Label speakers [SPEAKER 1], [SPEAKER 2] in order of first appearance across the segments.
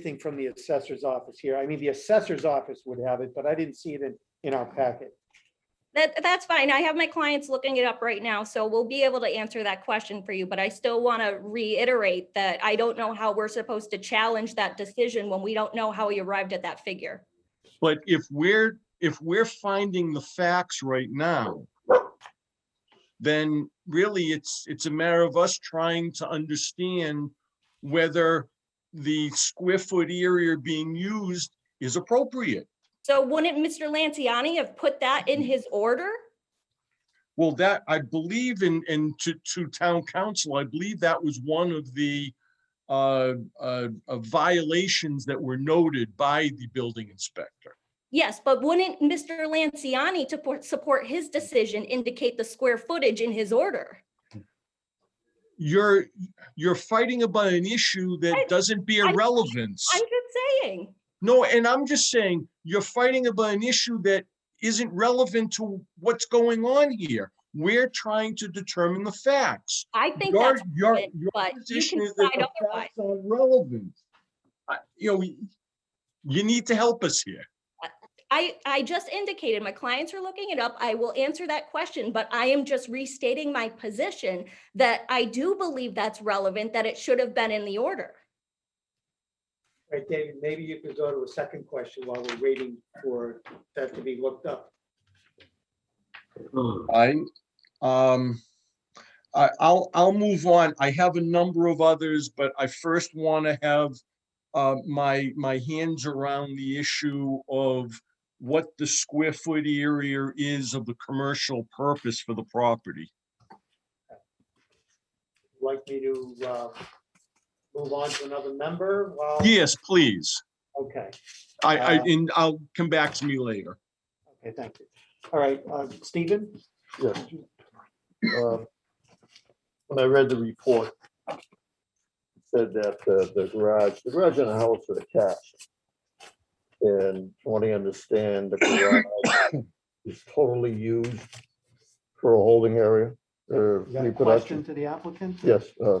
[SPEAKER 1] anything from the assessor's office here. I mean, the assessor's office would have it, but I didn't see it in, in our packet.
[SPEAKER 2] That, that's fine. I have my clients looking it up right now, so we'll be able to answer that question for you. But I still want to reiterate that I don't know how we're supposed to challenge that decision when we don't know how he arrived at that figure.
[SPEAKER 3] But if we're, if we're finding the facts right now, then really it's, it's a matter of us trying to understand whether the square foot area being used is appropriate.
[SPEAKER 2] So wouldn't Mr. Lanciani have put that in his order?
[SPEAKER 3] Well, that, I believe in, in to, to town council, I believe that was one of the uh, uh, uh, violations that were noted by the building inspector.
[SPEAKER 2] Yes, but wouldn't Mr. Lanciani to por- support his decision indicate the square footage in his order?
[SPEAKER 3] You're, you're fighting about an issue
[SPEAKER 2] I-
[SPEAKER 3] that doesn't be
[SPEAKER 2] I-
[SPEAKER 3] irrelevant.
[SPEAKER 2] I'm just saying.
[SPEAKER 3] No, and I'm just saying, you're fighting about an issue that isn't relevant to what's going on here. We're trying to determine the facts.
[SPEAKER 2] I think
[SPEAKER 3] Your-
[SPEAKER 2] that's,
[SPEAKER 3] your-
[SPEAKER 2] relevant,
[SPEAKER 3] your
[SPEAKER 2] but you
[SPEAKER 3] position
[SPEAKER 2] can
[SPEAKER 3] is that
[SPEAKER 2] decide
[SPEAKER 3] the
[SPEAKER 2] otherwise.
[SPEAKER 3] facts are Relevant. I- You know, we- you need to help us here.
[SPEAKER 2] I, I just indicated, my clients are looking it up. I will answer that question, but I am just restating my position that I do believe that's relevant, that it should have been in the order.
[SPEAKER 1] Right, David, maybe you could go to a second question while we're waiting for that to be looked up.
[SPEAKER 3] I, um, I, I'll, I'll move on. I have a number of others, but I first want to have uh, my, my hands around the issue of what the square foot area is of the commercial purpose for the property.
[SPEAKER 1] Like me to uh, move on to another member while?
[SPEAKER 3] Yes, please.
[SPEAKER 1] Okay,
[SPEAKER 3] I, I,
[SPEAKER 1] Uh,
[SPEAKER 3] and I'll come back to me later.
[SPEAKER 1] okay, thank you. All right, uh, Stephen?
[SPEAKER 4] Yes. Um, When I read the report, it said that uh, the garage, the garage and the house are attached. And from what I understand, the garage is totally used for a holding area or
[SPEAKER 1] You got a question
[SPEAKER 4] reproduction.
[SPEAKER 1] to the applicant?
[SPEAKER 4] Yes, uh,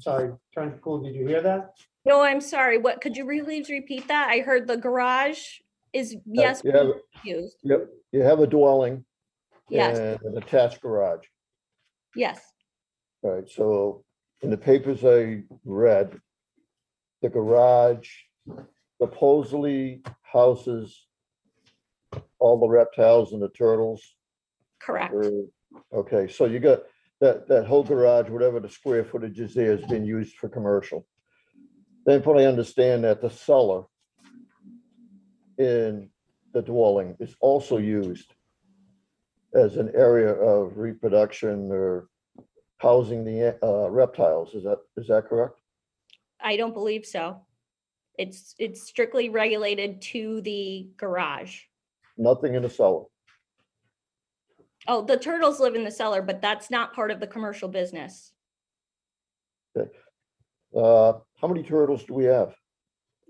[SPEAKER 1] Sorry, Attorney Cool, did you hear that?
[SPEAKER 2] No, I'm sorry, what, could you really repeat that? I heard the garage is, yes,
[SPEAKER 4] you have,
[SPEAKER 2] used,
[SPEAKER 4] yep, you have a dwelling
[SPEAKER 2] yes,
[SPEAKER 4] and an attached garage.
[SPEAKER 2] yes.
[SPEAKER 4] All right, so in the papers I read, the garage supposedly houses all the reptiles and the turtles.
[SPEAKER 2] Correct.
[SPEAKER 4] or- Uh, Okay, so you got, that, that whole garage, whatever the square footage is there, has been used for commercial. They probably understand that the cellar in the dwelling is also used as an area of reproduction or housing the uh, reptiles. Is that, is that correct?
[SPEAKER 2] I don't believe so. It's, it's strictly regulated to the garage.
[SPEAKER 4] Nothing in the cellar.
[SPEAKER 2] Oh, the turtles live in the cellar, but that's not part of the commercial business.
[SPEAKER 4] Uh, How many turtles do we have?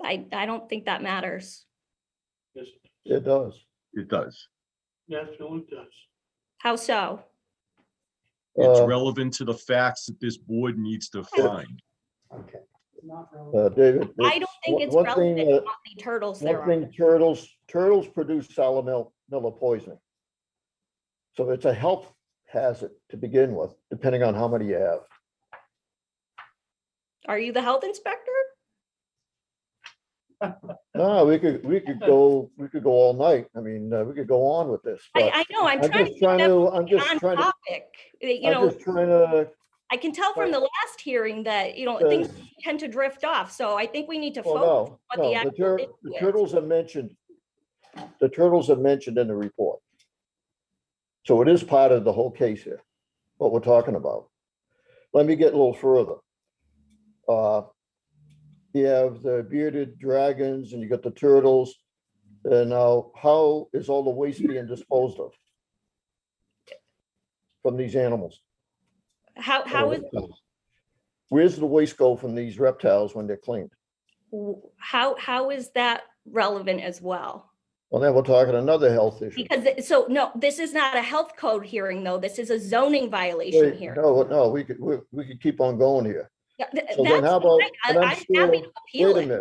[SPEAKER 2] I, I don't think that matters.
[SPEAKER 4] It does.
[SPEAKER 3] It does.
[SPEAKER 2] How so?
[SPEAKER 3] It's
[SPEAKER 4] Uh,
[SPEAKER 3] relevant to the facts that this board needs to find.
[SPEAKER 1] Okay.
[SPEAKER 4] uh, David?
[SPEAKER 2] I don't think it's
[SPEAKER 4] one- one thing
[SPEAKER 2] relevant
[SPEAKER 4] that-
[SPEAKER 2] how many turtles there
[SPEAKER 4] One
[SPEAKER 2] are.
[SPEAKER 4] thing, turtles, turtles produce salmonella poisoning. So it's a health hazard to begin with, depending on how many you have.
[SPEAKER 2] Are you the health inspector?
[SPEAKER 4] No, we could, we could go, we could go all night. I mean, uh, we could go on with this. but
[SPEAKER 2] I, I know, I'm
[SPEAKER 4] I'm
[SPEAKER 2] trying to
[SPEAKER 4] just
[SPEAKER 2] keep
[SPEAKER 4] trying
[SPEAKER 2] everything
[SPEAKER 4] to, I'm just
[SPEAKER 2] on
[SPEAKER 4] trying to,
[SPEAKER 2] topic. Uh, You
[SPEAKER 4] I'm
[SPEAKER 2] know,
[SPEAKER 4] just trying to.
[SPEAKER 2] I can tell from the last hearing that, you know,
[SPEAKER 4] uh,
[SPEAKER 2] things tend to drift off, so I think we need to focus.
[SPEAKER 4] Well,
[SPEAKER 2] what the
[SPEAKER 4] no, no, the
[SPEAKER 2] actual
[SPEAKER 4] tur-
[SPEAKER 2] issue
[SPEAKER 4] the
[SPEAKER 2] is.
[SPEAKER 4] turtles are mentioned, the turtles are mentioned in the report. So it is part of the whole case here, what we're talking about. Let me get a little further. Uh, You have the bearded dragons and you got the turtles. And now how is all the waste being disposed of? From these animals?
[SPEAKER 2] How,
[SPEAKER 4] Uh,
[SPEAKER 2] how is,
[SPEAKER 4] Where's the waste go from these reptiles when they're cleaned?
[SPEAKER 2] w- how, how is that relevant as well?
[SPEAKER 4] Well, then we're talking another health issue.
[SPEAKER 2] Because, it- so, no, this is not a health code hearing, though. This is a zoning violation
[SPEAKER 4] Wait,
[SPEAKER 2] here.
[SPEAKER 4] No, no, we could, we, we could keep on going here.
[SPEAKER 2] Yeah, th-
[SPEAKER 4] So then
[SPEAKER 2] that's
[SPEAKER 4] how about,
[SPEAKER 2] fine. I-
[SPEAKER 4] and
[SPEAKER 2] I'm
[SPEAKER 4] I'm
[SPEAKER 2] happy
[SPEAKER 4] still,
[SPEAKER 2] to appeal
[SPEAKER 4] wait a
[SPEAKER 2] it.
[SPEAKER 4] minute.